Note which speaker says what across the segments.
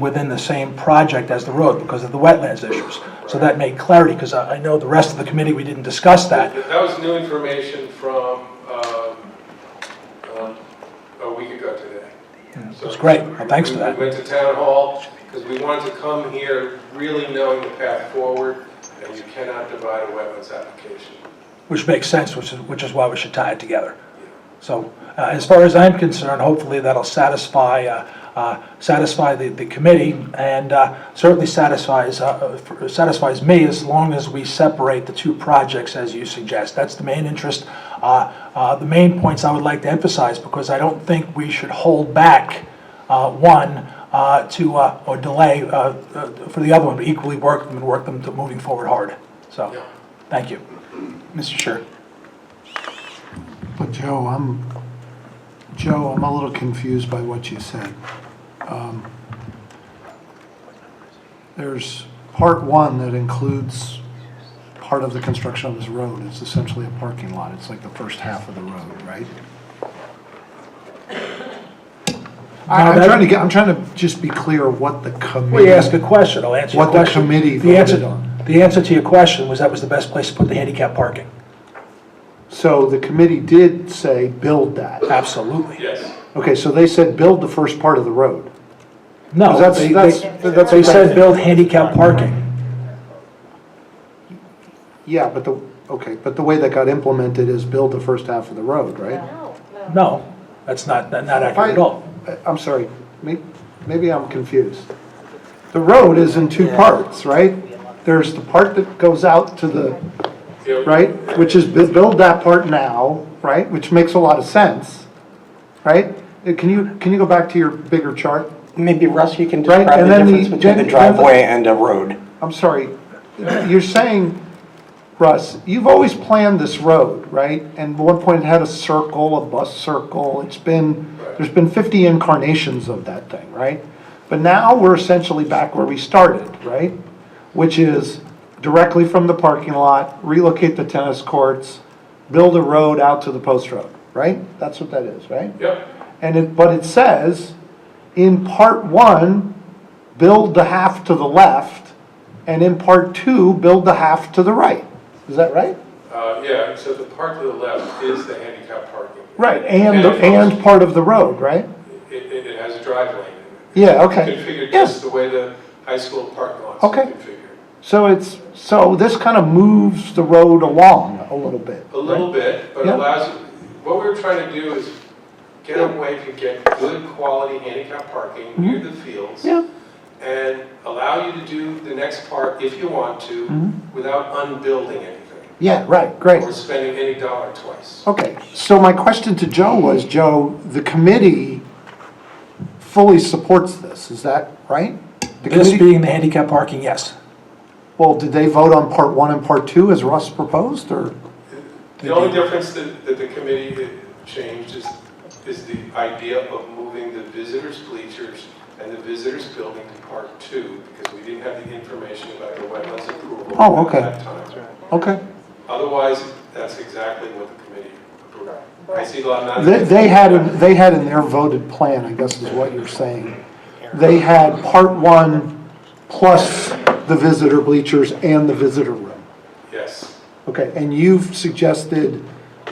Speaker 1: within the same project as the road because of the wetlands issues. So that made clarity, because I I know the rest of the committee, we didn't discuss that.
Speaker 2: That was new information from um, um, a week ago today. So
Speaker 1: That's great. Well, thanks for that.
Speaker 2: We went to town hall because we wanted to come here really knowing the path forward and you cannot divide a wetlands application.
Speaker 1: Which makes sense, which is, which is why we should tie it together. So, uh, as far as I'm concerned, hopefully that'll satisfy, uh, uh, satisfy the, the committee, and, uh, certainly satisfies, uh, uh, satisfies me as long as we separate the two projects as you suggest. That's the main interest, uh, uh, the main points I would like to emphasize, because I don't think we should hold back, uh, one, uh, to, uh, or delay, uh, uh, for the other one, but equally work them and work them to moving forward hard. So, thank you. Mr. Sure.
Speaker 3: But Joe, I'm, Joe, I'm a little confused by what you said. Um, There's part one that includes part of the construction of this road. It's essentially a parking lot. It's like the first half of the road, right? I- I'm
Speaker 1: No, that-
Speaker 3: trying to get, I'm trying to just be clear what the committee.
Speaker 1: Well, you ask a question, I'll answer your
Speaker 3: What the
Speaker 1: question.
Speaker 3: committee
Speaker 1: The answer-
Speaker 3: voted on.
Speaker 1: The answer to your question was that was the best place to put the handicap parking.
Speaker 3: So the committee did say, build that.
Speaker 1: Absolutely.
Speaker 2: Yes.
Speaker 3: Okay, so they said, build the first part of the road.
Speaker 1: No,
Speaker 3: 'Cause that's-
Speaker 1: they,
Speaker 3: that's-
Speaker 1: they,
Speaker 3: that's
Speaker 1: they
Speaker 3: what I
Speaker 1: said
Speaker 3: think.
Speaker 1: build handicap parking.
Speaker 3: Yeah, but the, okay, but the way that got implemented is build the first half of the road, right?
Speaker 4: No,
Speaker 1: No, that's not, not not accurate at all.
Speaker 3: I- Uh, I'm sorry, may- maybe I'm confused. The road is in two parts, right? There's the part that goes out to the,
Speaker 2: Yeah, we-
Speaker 3: right, which is bu- build that part now, right, which makes a lot of sense, right? Uh, Can you, can you go back to your bigger chart?
Speaker 5: Maybe Russ, you can
Speaker 3: Right,
Speaker 5: describe
Speaker 3: and
Speaker 5: the
Speaker 3: then the-
Speaker 5: difference between the
Speaker 3: then-
Speaker 5: driveway and a road.
Speaker 3: I'm sorry, you're saying, Russ, you've always planned this road, right? And at one point it had a circle, a bus circle, it's been, there's been 50 incarnations of that thing, right? But now we're essentially back where we started, right? Which is directly from the parking lot, relocate the tennis courts, build a road out to the post road, right? That's what that is, right?
Speaker 2: Yep.
Speaker 3: And it, but it says, in part one, build the half to the left, and in part two, build the half to the right. Is that right?
Speaker 2: Uh, Yeah, so the part to the left is the handicap parking.
Speaker 3: Right. And, the- and part of the road, right?
Speaker 2: It, it it has a drive lane. in it.
Speaker 3: Yeah, okay.
Speaker 2: Configured just
Speaker 3: Yes,
Speaker 2: the way the high school parking lots are
Speaker 3: Okay.
Speaker 2: configured.
Speaker 3: so it's, so this kind of moves the road along a little bit.
Speaker 2: A little bit, but
Speaker 3: Yeah.
Speaker 2: allows, what we're trying to do is get away from get good quality handicap parking near the fields
Speaker 3: Mm-hmm. Yeah,
Speaker 2: and allow you to do the next part if you want to
Speaker 3: Mhm.
Speaker 2: without unbuilding anything
Speaker 3: yeah, right, great.
Speaker 2: or spending any dollar twice.
Speaker 3: Okay, so my question to Joe was, Joe, the committee fully supports this, is that right? The
Speaker 1: This
Speaker 3: committee-
Speaker 1: being the handicap parking, yes.
Speaker 3: Well, did they vote on part one and part two as Russ proposed, or?
Speaker 2: The only difference that, that the committee changed is, is the idea of moving the visitors bleachers and the visitors building to part two because we didn't have the information about the wetlands approval
Speaker 3: Oh,
Speaker 2: at
Speaker 3: okay.
Speaker 2: that time. okay.
Speaker 3: Okay.
Speaker 2: Otherwise, that's exactly what the committee approved. I see a lot of
Speaker 3: They,
Speaker 2: that.
Speaker 3: they had, in- they had in their voted plan, I guess is what you're saying, they had part one plus the visitor bleachers and the visitor room.
Speaker 2: Yes,
Speaker 3: Okay, and you've suggested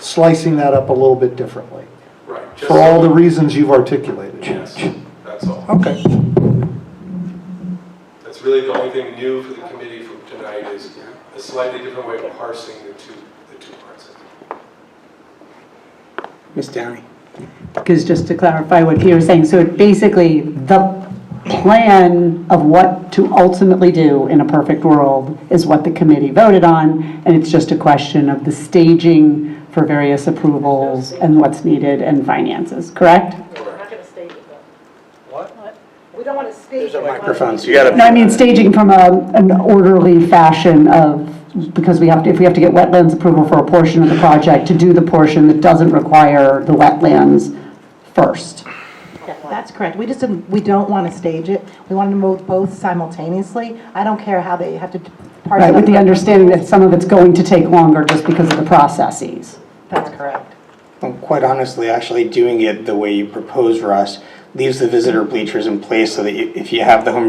Speaker 3: slicing that up a little bit differently,
Speaker 2: right. Just-
Speaker 3: for all the reasons you've articulated.
Speaker 2: Yes, that's all.
Speaker 3: Okay,
Speaker 2: That's really the only thing new for the committee from tonight is a slightly different way of parsing the two, the two parts.
Speaker 5: Ms. Downey?
Speaker 6: Because just to clarify what Peter's saying, so it basically, the plan of what to ultimately do in a perfect world is what the committee voted on, and it's just a question of the staging for various approvals and what's needed and finances, correct?
Speaker 4: we're not going to stage it though. What? We don't want to stage it.
Speaker 5: There's a microphone, so you
Speaker 6: No, I
Speaker 5: gotta,
Speaker 6: mean staging from a- an orderly fashion of, because we have, to if we have to get wetlands approval for a portion of the project, to do the portion that doesn't require the wetlands first.
Speaker 7: That's correct. We just didn't, we don't want to stage it. We want to move both simultaneously. I don't care how they have to parse it
Speaker 6: Right,
Speaker 7: up.
Speaker 6: with the understanding that some of it's going to take longer just because of the processes.
Speaker 7: That's correct.
Speaker 5: well, quite honestly, actually doing it the way you propose, Russ, leaves the visitor bleachers in place so that you- if you have the home